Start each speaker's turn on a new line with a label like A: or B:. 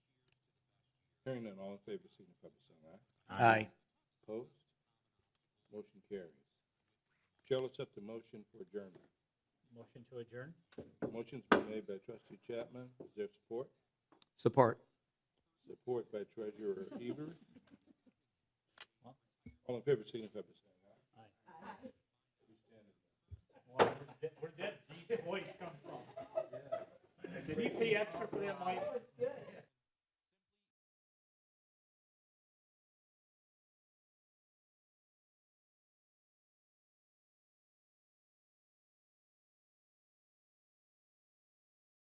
A: Hearing none, all in favor, signify by saying aye.
B: Aye.
A: Opposed? Motion carries. Chair will accept the motion for adjournment.
C: Motion to adjourn?
A: Motion's been made by trustee Chapman. Is there support?
B: Support.
A: Support by treasurer Eber.
C: Well-
A: All in favor, signify by saying aye.
C: Where did that deep voice come from? Did he pay extra for that mic?